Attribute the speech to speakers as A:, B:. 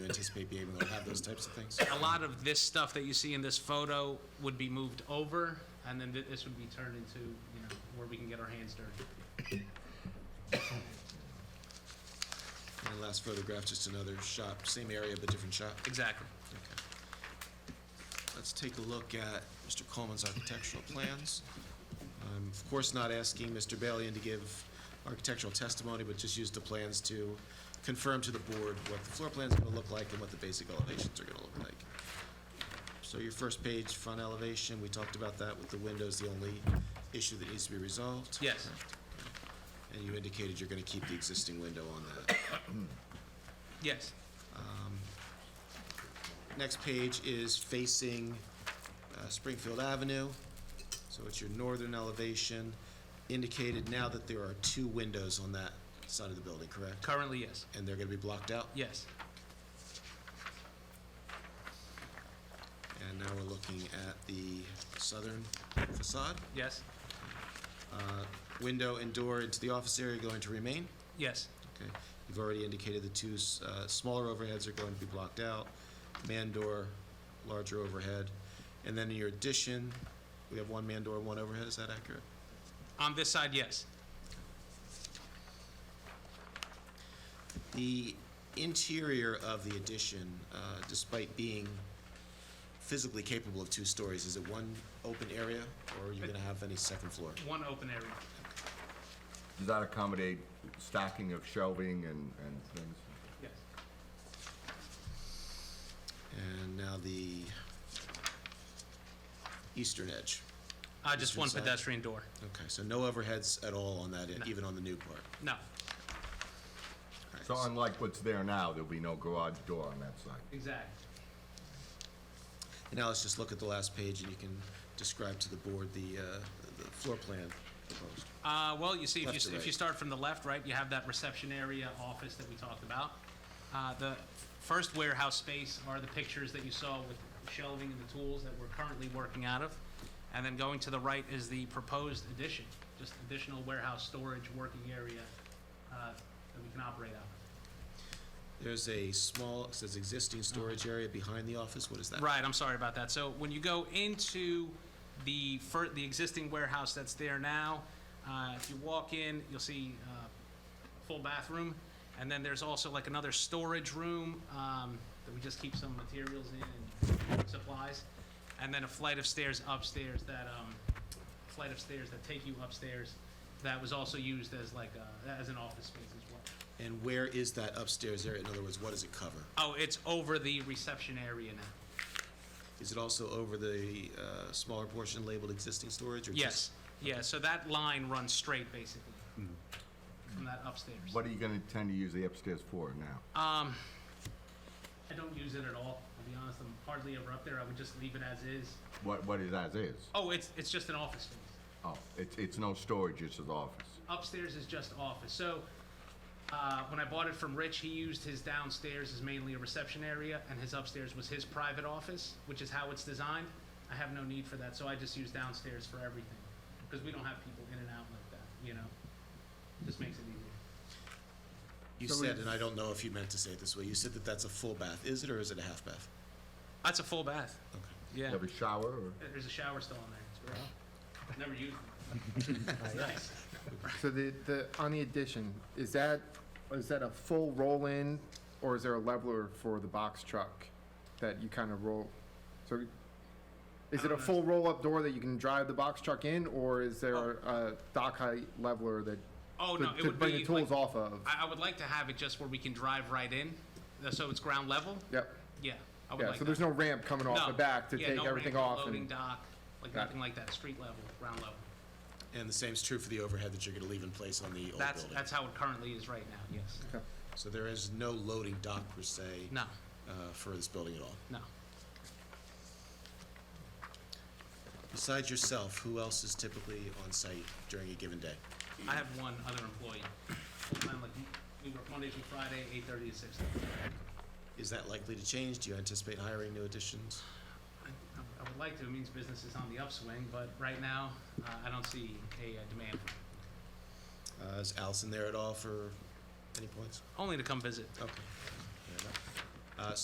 A: anticipate being able to have those types of things?
B: a lot of this stuff that you see in this photo would be moved over, and then thi- this would be turned into, you know, where we can get our hands dirty.
A: My last photograph, just another shop, same area but different shop.
B: Exactly.
A: Let's take a look at Mr. Coleman's architectural plans. I'm, of course, not asking Mr. Balian to give architectural testimony, but just use the plans to confirm to the board what the floor plan's gonna look like and what the basic elevations are gonna look like. So your first page, front elevation, we talked about that with the windows, the only issue that needs to be resolved.
B: Yes.
A: And you indicated you're gonna keep the existing window on that.
B: Yes.
A: Next page is facing uh, Springfield Avenue, so it's your northern elevation, indicated now that there are two windows on that side of the building, correct?
B: Currently, yes.
A: And they're gonna be blocked out?
B: Yes.
A: And now we're looking at the southern facade. Uh,
B: Yes.
A: Window and door into the office area are going to remain?
B: Yes.
A: Okay, you've already indicated the two s- uh, smaller overheads are going to be blocked out, man door, larger overhead. And then in your addition, we have one man door, one overhead, is that accurate?
B: On this side, yes.
A: The interior of the addition, uh, despite being physically capable of two stories, is it one open area, or are you gonna have any second floor?
B: One open area.
C: Does that accommodate stacking of shelving and, and things?
B: Yes.
A: And now the eastern edge.
B: Uh, just one
A: Eastern side.
B: pedestrian door.
A: Okay, so no overheads at all on that, e-
B: No.
A: even on the new part?
B: No.
A: All right,
C: So unlike what's there now, there'll be no garage door on that side.
B: Exactly.
A: And Now let's just look at the last page, and you can describe to the board the, uh, the floor plan proposed.
B: Uh, well, you see, if
A: Left to
B: you, if you
A: right.
B: start from the left, right, you have that reception area office that we talked about. Uh, the first warehouse space are the pictures that you saw with shelving and the tools that we're currently working out of. And then going to the right is the proposed addition, just additional warehouse storage working area, uh, that we can operate out of.
A: There's a small, it says existing storage area behind the office, what is that?
B: Right, I'm sorry about that. So when you go into the fir- the existing warehouse that's there now, uh, if you walk in, you'll see uh, full bathroom, and then there's also like another storage room um, that we just keep some materials in and supplies, and then a flight of stairs upstairs that um, flight of stairs that take you upstairs. That was also used as like a, as an office space as well.
A: And where is that upstairs area? In other words, what does it cover?
B: Oh, it's over the reception area now.
A: Is it also over the uh, smaller portion labeled existing storage? or just-
B: Yes, yeah, so that line runs straight, basically, from that upstairs.
C: What are you gonna intend to use the upstairs for now?
B: Um, I don't use it at all, I'll be honest, I'm hardly ever up there, I would just leave it as is.
C: What, what is as is?
B: Oh, it's, it's just an office space.
C: Oh, it's, it's no storage, it's an office.
B: upstairs is just office. So uh, when I bought it from Rich, he used his downstairs as mainly a reception area, and his upstairs was his private office, which is how it's designed. I have no need for that, so I just use downstairs for everything because we don't have people in and out like that. You know, just makes it easier.
A: You
C: So
A: said,
C: we-
A: and I don't know if you meant to say it this way, you said that that's a full bath. Is it or is it a half bath?
B: That's a full bath.
A: Okay.
B: Yeah.
C: You have a shower or?
B: There's a shower still on there. It's great. Never used it. It's nice.
D: So the, the, on the addition, is that, is that a full roll-in, or is there a leveler for the box truck that you kind of roll? So, is it a full roll-up door that you can drive the box truck in, or is there a dock height leveler that,
B: Oh no,
D: to-
B: it
D: to
B: would be
D: bring the tools
B: like-
D: off of?
B: I, I would like to have it just where we can drive right in, uh, so it's ground level.
D: Yep,
B: Yeah, I would
D: yeah,
B: like
D: so
B: that.
D: there's no ramp coming off the back to take everything off
B: Loading
D: and,
B: dock, like
D: Got it.
B: nothing like that, street level, ground level.
A: And the same's true for the overhead that you're going to leave in place on the old
B: That's,
A: building?
B: that's how it currently is right now, yes.
A: So there is no loading dock per se?
B: No,
A: uh, For this building at all?
B: no.
A: Besides yourself, who else is typically on site during a given day?
B: I have one other employee, full-time, like, we work Monday through Friday, eight thirty to six thirty.
A: Is that likely to change? Do you anticipate hiring new additions?
B: I- I would like to, it means business is on the upswing, but right now, uh, I don't see a uh, demand. for it.
A: Uh, Is Allison there at all for any points?
B: Only to come visit.
A: Okay. Uh,